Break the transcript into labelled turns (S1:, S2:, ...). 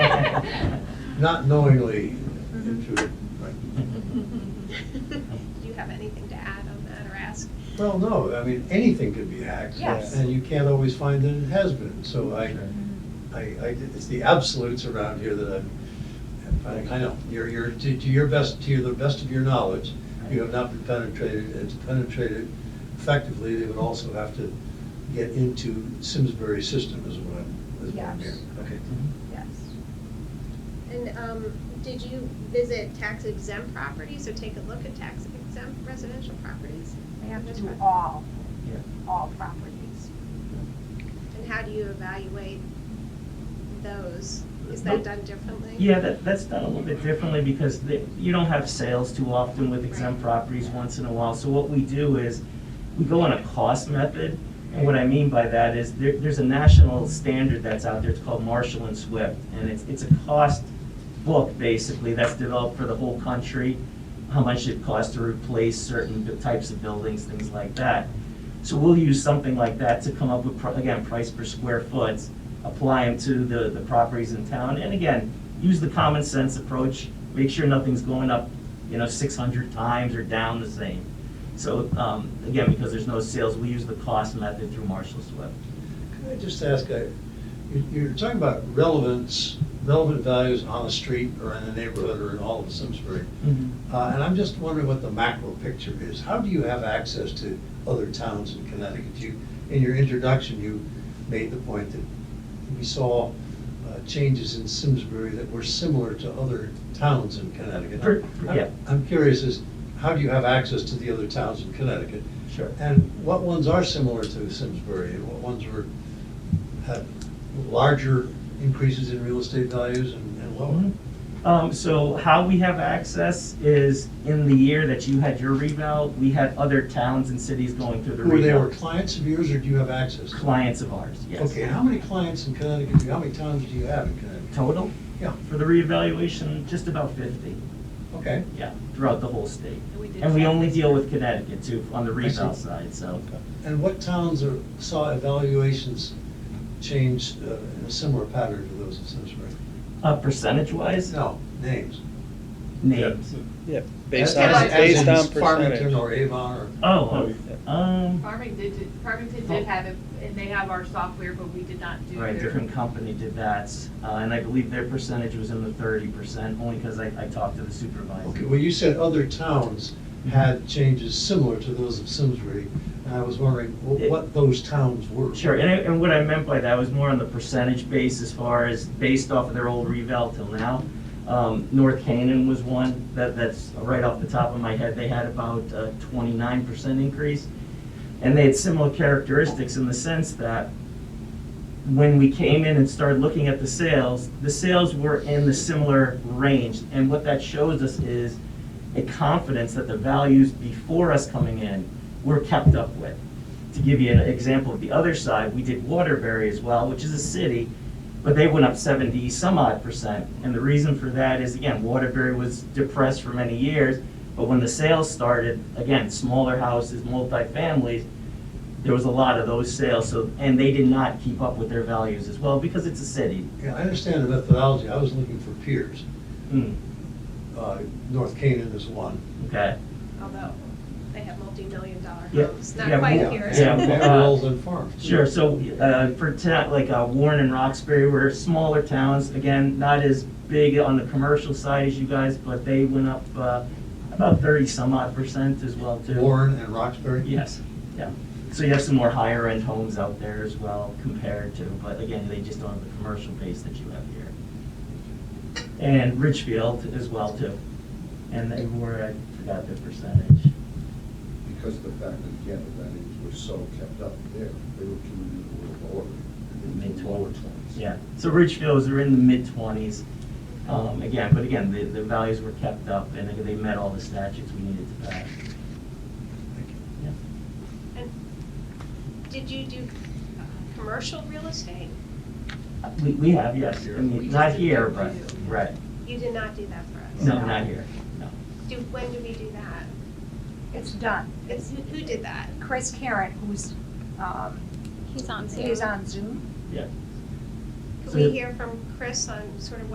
S1: not knowingly
S2: Mhm.
S1: into it. right.
S2: Do you have anything to add on that or ask?
S1: Well, no, I mean, anything could be hacked.
S2: Yes.
S1: And you can't always find that it has been, so I,
S2: Mm-hmm.
S1: I, I, it's the absolutes around here that I'm, I'm finding, I know, you're, you're, to, to your best, to the best of your knowledge, you have not been penetrated, and to penetrate it effectively, they would also have to get into Simsbury system is what I'm, is what I'm
S2: Yes.
S1: hearing. Okay.
S2: Yes. And um, did you visit tax exempt properties or take a look at tax exempt residential properties?
S3: We have to
S2: That's
S3: do
S2: right.
S3: all,
S4: Yeah.
S3: all properties.
S2: And how do you evaluate those? Is
S4: No.
S2: that done differently?
S4: Yeah, that, that's done a little bit differently because the, you don't have sales too often with exempt properties once in a while. So what we do is, we go on a cost method. And what I mean by that is, there, there's a national standard that's out there, it's called Marshall and Swift. And it's, it's a cost book, basically, that's developed for the whole country, how much it costs to replace certain bu- types of buildings, things like that. So we'll use something like that to come up with, pri- again, price per square foot, apply them to the, the properties in town. And again, use the common sense approach, make sure nothing's going up, you know, six hundred times or down the same. So, um, again, because there's no sales, we use the cost method through Marshall Swift.
S1: Can I just ask, uh, you- you're talking about relevance, relevant values on the street or in the neighborhood or in all of Simsbury.
S4: Mm-hmm.
S1: Uh, And I'm just wondering what the macro picture is. How do you have access to other towns in Connecticut? You, in your introduction, you made the point that we saw uh, changes in Simsbury that were similar to other towns in Connecticut.
S4: Per- per- yeah.
S1: I'm curious is, how do you have access to the other towns in Connecticut?
S4: Sure.
S1: And what ones are similar to Simsbury? and What ones were, had larger increases in real estate values and and lower?
S4: Um, so how we have access is in the year that you had your revale, we had other towns and cities going through the
S1: Were they
S4: revale.
S1: were clients of yours or do you have access? to them?
S4: Clients of ours, yes.
S1: Okay, how many clients in Connecticut, do you- how many towns do you have in Connecticut?
S4: Total,
S1: Yeah,
S4: for the reevaluation, just about fifty,
S1: okay.
S4: yeah, throughout the whole state.
S2: And we did
S4: And we
S2: five
S4: only
S2: this
S4: deal
S2: year.
S4: with Connecticut too, on the
S1: I see.
S4: revale side, so.
S1: And what towns are, saw evaluations change uh, in a similar pattern to those in Simsbury?
S4: Uh, percentage wise,
S1: No, names.
S4: names.
S5: Yeah, based
S1: As-
S5: on,
S1: as in
S5: based on
S1: Farmington
S5: percentage.
S1: or Avon or.
S4: Oh, um,
S6: Farmington did, Farmington did have, it, and they have our software, but we did not do
S4: Oh. right,
S6: their.
S4: different company did that, uh, and I believe their percentage was in the thirty percent, only because I, I talked to the
S1: Okay,
S4: supervisor.
S1: well, you said other towns had changes similar to those of Simsbury, and I was wondering wh- what those towns were.
S4: Sure, and, I- and what I meant by that was more on the percentage base as far as based off of their old revale till now. Um, North Canaan was one, that, that's right off the top of my head, they had about a twenty-nine percent increase. And they had similar characteristics in the sense that when we came in and started looking at the sales, the sales were in the similar range. And what that shows us is a confidence that the values before us coming in were kept up with. To give you an example of the other side, we did Waterbury as well, which is a city, but they went up 70 some odd percent. And the reason for that is, again, Waterbury was depressed for many years, but when the sales started, again, smaller houses, multifamilies, there was a lot of those sales, so, and they did not keep up with their values as well, because it's a city.
S1: Yeah, I understand the methodology, I was looking for peers.
S4: Hmm,
S1: Uh, North Canaan is one.
S4: Okay,
S2: Although they have multi-million dollar
S4: Yeah.
S2: homes, not
S4: Yeah,
S2: quite
S4: more-
S2: here.
S4: yeah, more-
S1: Barrels and farms.
S4: sure, so, uh, for ta, like, uh, Warren and Roxbury were smaller towns, again, not as big on the commercial side as you guys, but they went up, uh, about thirty some odd percent as well too.
S1: Warren and Roxbury?
S4: Yes, yeah, so you have some more higher end homes out there as well compared to, but again, they just don't have the commercial base that you have here. And Ridgefield as well too, and they were, I forgot the percentage.
S7: because of the fact that, again, the values were so kept up there, they were coming in a little lower.
S4: Mid
S7: into the Lower
S4: twenties.
S7: twenties.
S4: Yeah, so Ridgefields are in the mid-twenties, um, again, but again, the, the values were kept up, and they- they met all the statutes we needed to pass. Yeah.
S2: And Did you do uh, commercial real estate?
S4: We, we have, yes, I
S6: We
S4: mean,
S6: just
S4: not
S6: did
S4: here,
S6: that
S4: but,
S6: for you.
S4: right,
S2: You did not do that for us?
S4: no, not here, no.
S2: Do, when did we do that?
S3: It's done.
S2: It's, who- who did that?
S3: Chris Karen, who's, um,
S8: He's on Zoom.
S3: he's on Zoom.
S4: Yeah.
S2: Could
S4: So-
S2: we hear from Chris on sort of what